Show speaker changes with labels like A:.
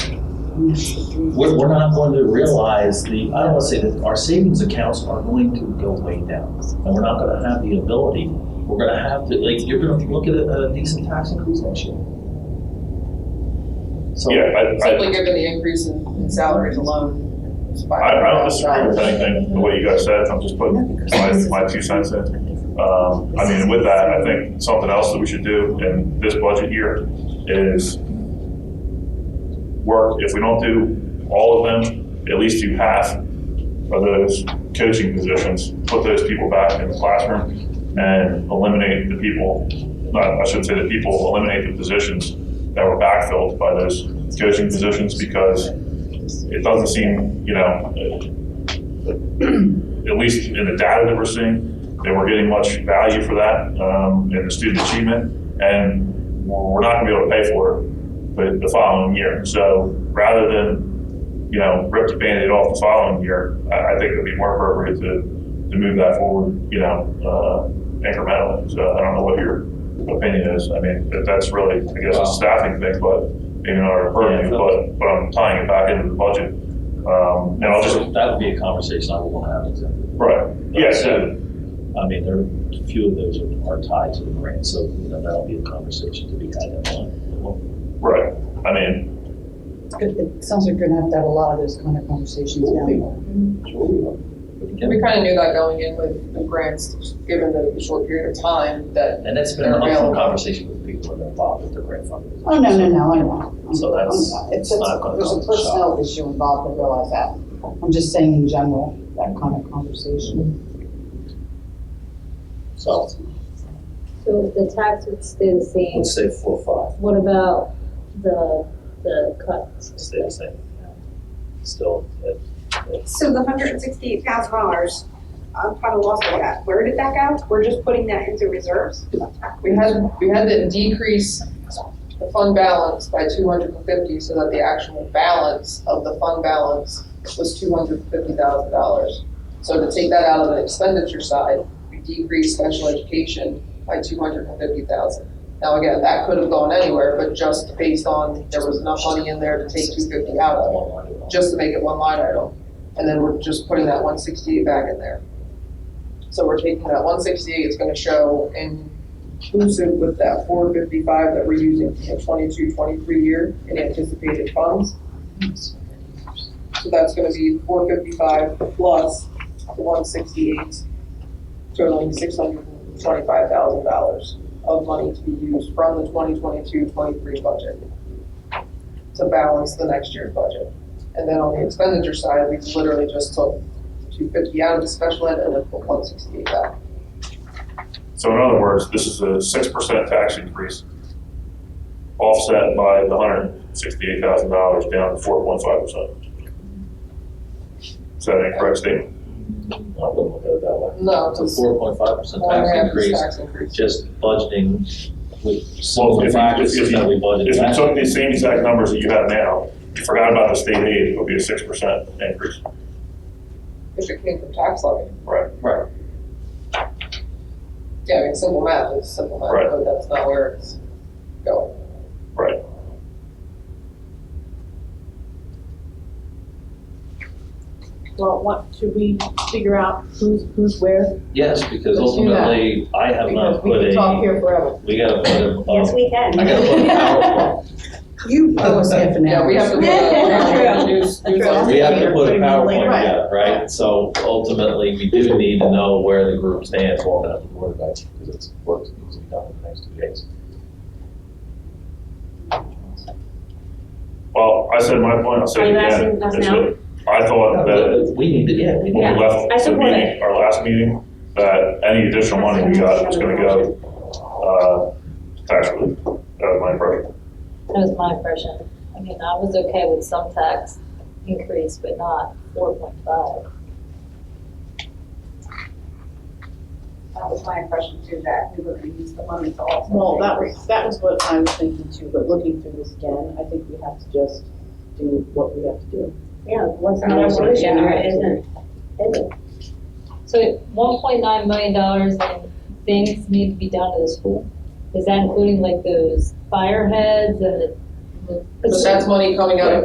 A: we're, we're not going to realize the, I don't want to say that our savings accounts are going to go way down. And we're not going to have the ability, we're going to have to, like, you're going to look at a a decent tax increase next year. So,
B: Yeah, I, I,
C: Simply given the increase in in salaries alone. it's five
B: I I don't disagree
C: thousand
B: with
C: dollars.
B: anything, the way you guys said, I'm just putting my, my two cents in. Um, I mean, with that, I think something else that we should do in this budget year is work, if we don't do all of them, at least do half of those coaching positions, put those people back in the classroom and eliminate the people, not, I should say the people, eliminate the positions that were backfilled by those coaching positions because it doesn't seem, you know, uh, at least in the data that we're seeing, that we're getting much value for that um, in the student achievement, and we're not going to be able to pay for it for the following year. So rather than, you know, rip the Band-Aid off the following year, I I think it would be more appropriate to, to move that forward, you know, uh, incrementally. So I don't know what your opinion is. I mean, that- that's really, I guess, a staffing thing, but maybe not our purview,
A: Yeah.
B: but, but I'm tying it back into the budget. Um, And I'll just,
A: that would be a conversation I would want to have with them.
B: right, yes,
A: So, I mean, there, a few of those are- are tied to the grant, so, you know, that'll be a conversation to be had at one.
B: right. I mean,
D: It it sounds like you're gonna have to have a lot of those kind of conversations down there.
C: We kind of knew that going in with the grants, given the short period of time that.
A: And that's been an upfront conversation with people that are involved with the grant funding.
D: Oh, no, no, no, I know.
A: So that's- it's
D: It's,
A: not gonna
D: it's-
A: come
D: there's a
A: to
D: personnel issue involved, I realize that. I'm just saying in general, that kind of conversation.
A: So,
E: So if the tax would stay the same,
A: let's say four, or
E: what about the, the cuts?
A: five, stay the same. Still, uh,
F: So the hundred and sixty-eight thousand dollars, I'm kind of lost on that. Where did that go? We're just putting that into reserves?
C: We had, we had to decrease the fund balance by two hundred and fifty so that the actual balance of the fund balance was two hundred and fifty thousand dollars. So to take that out of the expenditure side, we decreased special education by two hundred and fifty thousand. Now again, that could have gone anywhere, but just based on, there was enough money in there to take two fifty out of it.
A: one line.
C: just to make it one line item. And then we're just putting that one sixty-eight back in there. So we're taking that one sixty-eight, it's gonna show inclusive with that four fifty-five that we're using for the 22-23 year in anticipated funds. So that's gonna be four fifty-five plus the one sixty-eight, totaling six hundred and twenty-five thousand dollars of money to be used from the 2022-23 budget to balance the next year's budget. And then on the expenditure side, we literally just took two fifty out of the special ed and then put one sixty-eight back.
B: so in other words, this is a six percent tax increase offset by the hundred sixty-eight thousand dollars down to four point five percent. Is that an incorrect statement?
A: I wouldn't look at it that way.
C: No,
A: It's a
C: it's
A: four point five percent
C: one and a
A: tax
C: half
A: increase,
C: tax increase.
A: just budgeting with some
B: Well,
A: of
B: if
A: the
B: you- if
A: practices
B: you-
A: that we budgeted.
B: If you
A: back.
B: took the same exact numbers that you have now, you forgot about the state aid, it would be a six percent increase.
C: If it came from tax levy.
B: Right.
A: Right.
C: Yeah, I mean, simple math is simple
B: Right.
C: math, but that's not where it's going.
B: Right.
G: Well, what, should we figure out who's, who's where?
A: Yes, because
G: Let's do that.
A: ultimately, I have not
G: Because we
A: put
G: can talk
A: a,
G: here forever.
A: we gotta put a,
E: Yes,
A: um,
E: we can.
A: I gotta put a PowerPoint.
D: You owe us half an
C: Oh, Yeah,
D: hour.
C: we have to. we have to do- do- do something.
A: We have to put a PowerPoint
G: Right.
A: together, right? So ultimately, we do need to know where the group stands, well, that's the word, right? Because it's work that needs to be done in the next two days.
B: Well, I said my point, I'll say
E: Are
B: it
E: you
B: again.
E: asking us
B: is
E: now?
B: that I thought that
A: We need to, yeah, we need
B: when
A: to.
B: we
E: Yeah, I
B: left the
E: support
B: meeting, our last meeting, that any additional money we got was gonna go, uh, tax relief. That was my impression.
E: That was my impression. I mean, I was okay with some tax increase, but not four point five.
F: That was my impression too, that we were gonna use the money to offset.
G: Well,
F: the
G: that
F: increase.
G: was, that was what I was thinking too, but looking through this again, I think we have to just do what we have to do.
E: Yeah, what's
F: not a solution, or
E: isn't, isn't. So one point nine million dollars in things need to be done to the school? Is that including like those fire heads and the?
C: But that's money coming out of